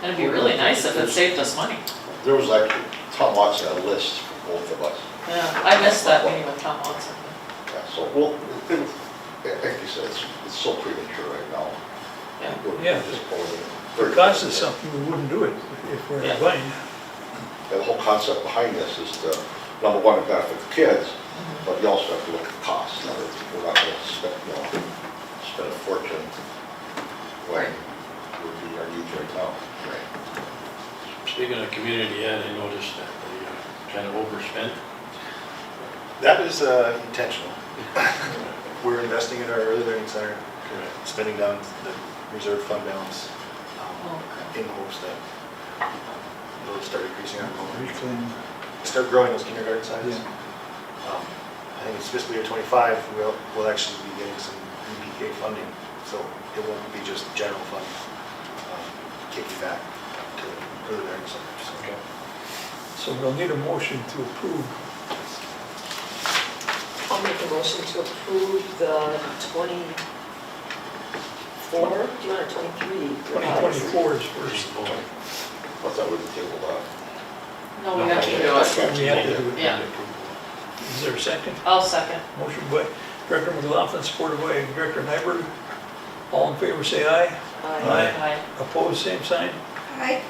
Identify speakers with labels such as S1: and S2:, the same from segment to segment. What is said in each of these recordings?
S1: That'd be really nice if it saved us money.
S2: There was actually, Tom Watson had a list for both of us.
S1: Yeah, I missed that meeting with Tom Watson.
S2: Yeah, So, well, it- it- like you said, it's, it's so premature right now.
S1: Yeah.
S2: We're
S3: Yeah.
S2: just going in.
S3: For cost is something, we wouldn't do it if we're in a
S1: Yeah.
S3: bind.
S2: And The whole concept behind this is to, number one, it benefits the kids,
S1: Mm-hmm.
S2: but you also have to look at the cost. Now, it's- We're not gonna spend, you know, spend a fortune when
S1: Right.
S2: we're meeting our needs right now.
S4: Speaking of community ed, I noticed that they uh, kind of overspent.
S5: That is uh, intentional. We're investing in our early learning center,
S4: Correct.
S5: spending down the reserve fund balance um,
S1: Oh, okay.
S5: in hopes that um, it'll start increasing our enrollment,
S3: Reclaim,
S5: start growing those kindergarten sizes.
S3: yeah.
S5: Um, I think it's fiscal year '25, we'll, we'll actually be getting some EPK funding, so it won't be just general fund um, kicking back to early learning centers. so.
S4: Okay.
S3: So we'll need a motion to approve.
S6: I'll make a motion to approve the 24, do you want a 23?
S3: 2024 is
S4: First
S3: first.
S4: of all,
S2: But that would table uh, that.
S1: No, we have to do it.
S3: We have to do it.
S1: Yeah.
S3: Is there a second?
S1: I'll second.
S3: Motion by Director McLaughlin, supported by Director Nyberg. All in favor, say aye.
S6: Aye.
S1: Aye.
S3: Opposed, same sign.
S6: Aye.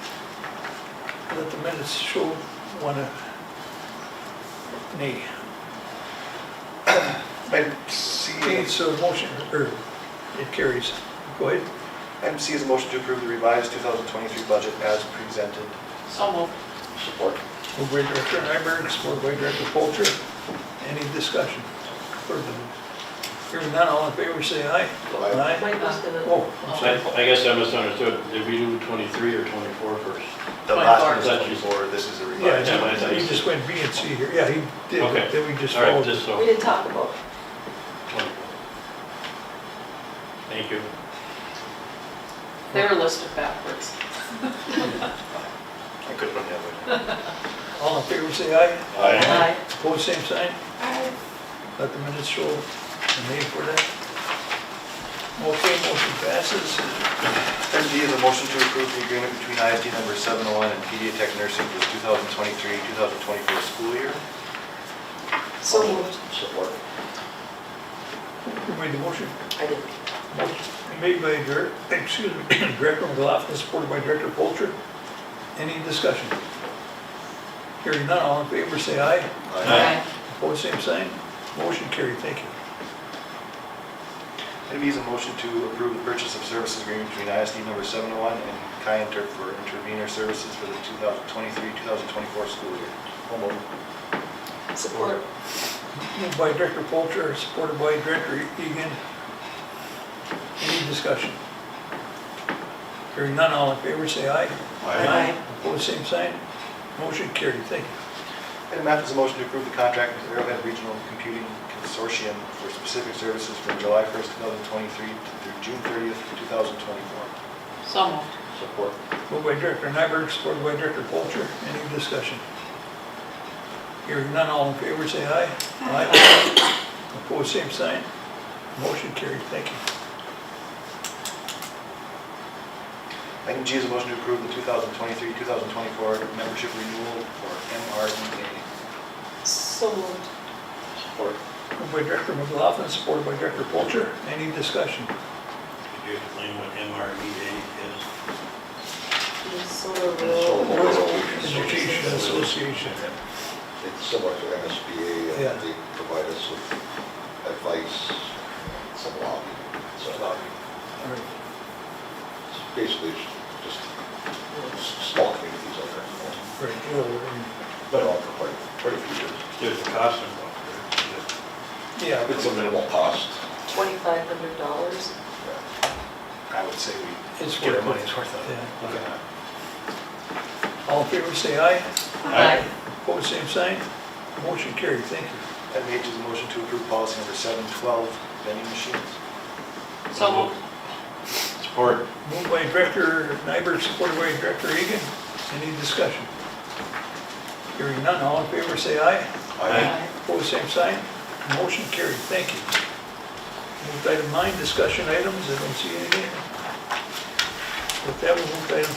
S3: Let the minutes show one uh, nay.
S5: Item C,
S3: Okay, so motion, or it carries. Go ahead.
S5: item C is a motion to approve the revised 2023 budget as presented.
S1: So moved.
S2: Support.
S3: Moved by Director Nyberg, supported by Director Polter. Any discussion? Further? Hearing none, all in favor, say aye.
S2: Aye.
S6: Mike was gonna,
S3: Oh, I'm
S4: I
S3: sorry.
S4: I guess I misunderstood. Did we do 23 or 24 first?
S5: The last
S1: 24.
S5: one is 24, this is a
S3: Yeah,
S5: revised.
S4: Yeah, I thought
S3: he-
S4: you
S3: he
S4: said-
S3: just went B and C here. Yeah, he did,
S4: Okay.
S3: but then we just
S4: All right,
S3: followed.
S4: just
S6: we
S4: so.
S6: didn't talk about, it.
S4: 24. Thank you.
S1: They were listed backwards.
S5: I could run the other way.
S3: All in favor, say aye.
S2: Aye.
S1: Aye.
S3: Opposed, same sign. Let the minutes show the need for that. Okay, motion passes.
S5: Item D is a motion to approve the agreement between ISD number 701 and Pediatric Nursing for the 2023-2024 school year.
S6: so moved.
S2: Support.
S3: Who made the motion?
S6: I didn't.
S3: Motion Made by Director, excuse me, Director McLaughlin, supported by Director Polter. Any discussion? Hearing none, all in favor, say aye.
S1: Aye.
S3: Opposed, same sign. Motion carried, thank you.
S5: Item E is a motion to approve the purchase of services agreement between ISD number 701 and Kyanter for intervenor services for the 2023-2024 school year. Home move.
S6: Support.
S3: Moved by Director Polter, supported by Director Egan. Any discussion? Hearing none, all in favor, say aye.
S6: Aye.
S3: Opposed, same sign. Motion carried, thank you.
S5: Item F is a motion to approve the contract with Arrowhead Regional Computing Consortium for specific services from July 1st, 2023 through June 30th, 2024.
S1: So moved.
S2: Support.
S3: Moved by Director Nyberg, supported by Director Polter. Any discussion? Hearing none, all in favor, say aye. Aye. Opposed, same sign. Motion carried, thank you.
S5: Item G is a motion to approve the 2023-2024 membership renewal for E MREA.
S6: So moved.
S2: Support.
S3: Moved by Director McLaughlin, supported by Director Polter. Any discussion?
S4: Could you explain what MRBA is?
S6: Minnesota
S2: Minnesota.
S6: Rural.
S3: Education Association.
S2: It's similar to MSBA,
S3: Yeah.
S2: and they provide us with advice, some lobbying, some lobbying.
S3: All right.
S2: It's Basically, it's just s- small communities out there,
S3: Right, well, and-
S2: but all for quite, quite a few years.
S4: There's a cost involved. right?
S3: yeah, but
S2: It's a minimal cost.
S6: $2,500.
S2: yeah.
S5: I would say we
S3: it's
S5: get
S3: worth
S5: our money's
S3: it.
S5: worth out of it.
S3: Yeah. All in favor, say aye.
S4: Aye.
S3: Opposed, same sign. Motion carried, thank you.
S5: Item H is a motion to approve policy number 712, vending machines.
S1: So moved.
S4: Support.
S3: Moved by Director Nyberg, supported by Director Egan. Any discussion? Hearing none, all in favor, say aye.
S2: Aye.
S3: Opposed, same sign. Motion carried, thank you. Move to item nine, discussion items, I don't see anything. With that, we move to item